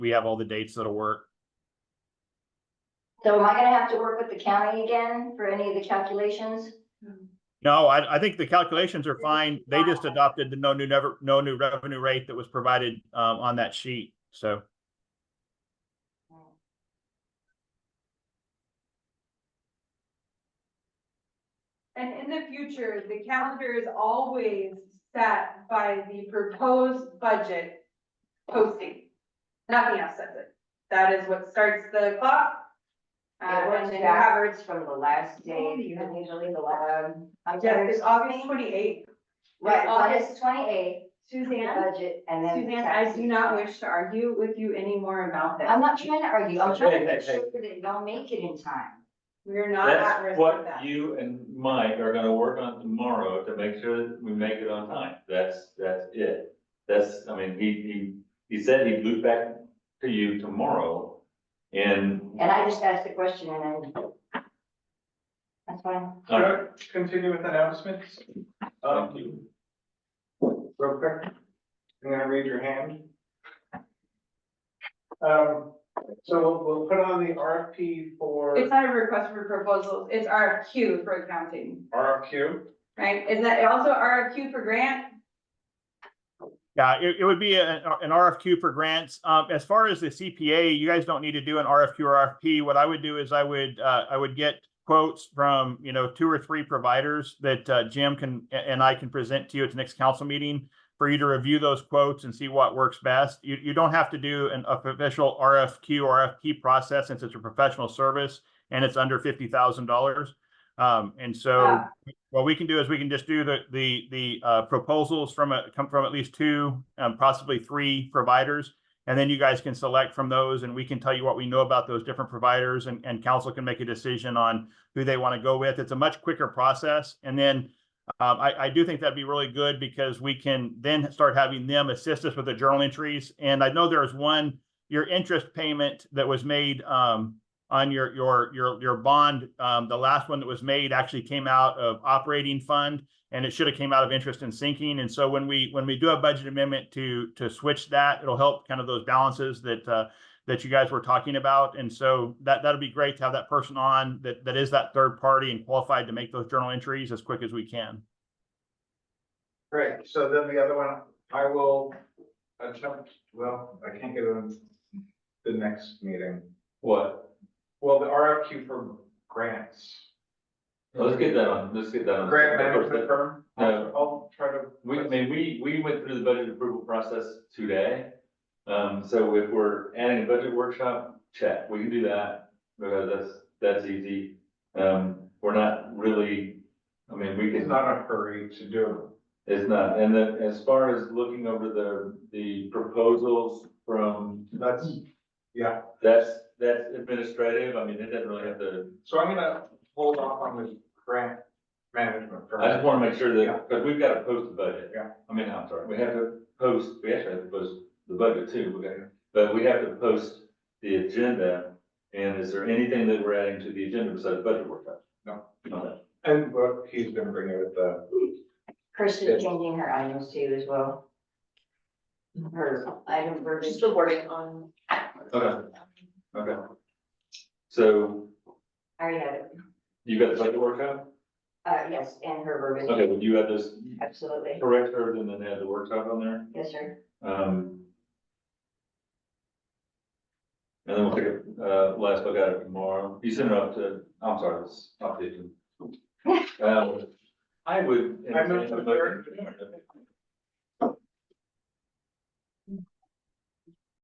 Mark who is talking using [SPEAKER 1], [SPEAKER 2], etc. [SPEAKER 1] we have all the dates that'll work.
[SPEAKER 2] So am I gonna have to work with the county again for any of the calculations?
[SPEAKER 1] No, I, I think the calculations are fine. They just adopted the no new never, no new revenue rate that was provided, um, on that sheet. So,
[SPEAKER 3] And in the future, the calendar is always set by the proposed budget posting. Nothing else sets it. That is what starts the clock. Uh,
[SPEAKER 4] It
[SPEAKER 3] and
[SPEAKER 4] was
[SPEAKER 3] then you have,
[SPEAKER 4] backwards from the last
[SPEAKER 3] Oh,
[SPEAKER 4] day,
[SPEAKER 3] you have-
[SPEAKER 4] usually the last.
[SPEAKER 2] I'm
[SPEAKER 3] yes,
[SPEAKER 2] sorry,
[SPEAKER 3] it's August twenty-eighth.
[SPEAKER 2] Um, right, August
[SPEAKER 3] August-
[SPEAKER 2] twenty-eighth,
[SPEAKER 4] Suzanne,
[SPEAKER 2] budget,
[SPEAKER 4] and then. Suzanne, I do not wish to argue with you anymore about this.
[SPEAKER 2] I'm not trying to argue, I'm trying to
[SPEAKER 5] Hey, hey,
[SPEAKER 2] make
[SPEAKER 5] hey.
[SPEAKER 2] sure that y'all make it in time.
[SPEAKER 3] We're not at
[SPEAKER 5] That's
[SPEAKER 3] risk of
[SPEAKER 5] what
[SPEAKER 3] that.
[SPEAKER 5] you and Mike are gonna work on tomorrow to make sure that we make it on time. That's, that's it. That's, I mean, he, he, he said he'd loop back to you tomorrow and.
[SPEAKER 2] And I just asked the question and I. That's fine.
[SPEAKER 5] All right,
[SPEAKER 6] Continue with announcements. Um,
[SPEAKER 5] thank you.
[SPEAKER 6] real quick. I'm gonna read your hand. Um, so we'll, we'll put on the RFP
[SPEAKER 3] It's
[SPEAKER 6] for
[SPEAKER 3] not a request for proposals, it's RFQ for accounting,
[SPEAKER 6] RFQ.
[SPEAKER 3] right? Isn't that also RFQ for grant?
[SPEAKER 1] yeah, it, it would be a- an RFQ for grants. Um, as far as the CPA, you guys don't need to do an RFQ or RFP. What I would do is I would, uh, I would get quotes from, you know, two or three providers that, uh, Jim can, a- and I can present to you at the next council meeting for you to review those quotes and see what works best. You, you don't have to do an official RFQ or RFP process since it's a professional service and it's under fifty thousand dollars. Um, and so
[SPEAKER 3] Ah.
[SPEAKER 1] what we can do is we can just do the, the, the, uh, proposals from a, come from at least two, um, possibly three providers. And then you guys can select from those and we can tell you what we know about those different providers and, and council can make a decision on who they want to go with. It's a much quicker process. And then um, I, I do think that'd be really good because we can then start having them assist us with the journal entries. And I know there is one, your interest payment that was made, um, on your, your, your, your bond, um, the last one that was made actually came out of operating fund and it should have came out of interest and sinking. And so when we, when we do a budget amendment to, to switch that, it'll help kind of those balances that, uh, that you guys were talking about. And so that, that'll be great to have that person on that, that is that third party and qualified to make those journal entries as quick as we can.
[SPEAKER 6] Great, so then the other one, I will attempt, well, I can't get it on the next meeting.
[SPEAKER 5] What?
[SPEAKER 6] Well, the RFQ for grants.
[SPEAKER 5] Let's get that on, Uh, let's get that on.
[SPEAKER 6] Grant management firm.
[SPEAKER 5] No.
[SPEAKER 6] I'll try to.
[SPEAKER 5] We, I mean, we, we went through the budget approval process today. Um, so if we're adding a budget workshop, check, we can do that, because that's, that's easy. Um, we're not really, I mean, we
[SPEAKER 6] He's
[SPEAKER 5] can,
[SPEAKER 6] not in a hurry to do
[SPEAKER 5] it's not, and then as far as looking over the, the proposals from,
[SPEAKER 6] it. That's, yeah.
[SPEAKER 5] that's, that's administrative, I mean, it doesn't really have to.
[SPEAKER 6] So I'm gonna hold off on the grant management
[SPEAKER 5] I just
[SPEAKER 6] firm.
[SPEAKER 5] wanna make sure
[SPEAKER 6] Yeah.
[SPEAKER 5] that, because we've gotta post the budget.
[SPEAKER 6] Yeah.
[SPEAKER 5] I mean, I'm sorry, we have to post, we actually have to post the budget too, we gotta, but we have to post the agenda. And is there anything that we're adding to the agenda besides budget workshop?
[SPEAKER 6] No.
[SPEAKER 5] No.
[SPEAKER 6] And what he's been bringing with the,
[SPEAKER 2] Kirsten changing her items too as well. Her item version. Still working on.
[SPEAKER 5] Okay, okay. So
[SPEAKER 2] I already had it,
[SPEAKER 5] you got the budget workshop?
[SPEAKER 2] uh, yes, and her verbiage,
[SPEAKER 5] Okay, would you add this,
[SPEAKER 2] absolutely,
[SPEAKER 5] correct her and then add the workshop on there?
[SPEAKER 2] yes, sir.
[SPEAKER 5] Um. And then we'll take a, uh, last look at it tomorrow. You send it up to, I'm sorry, it's updated. Um, I would.
[SPEAKER 6] I moved to adjourn.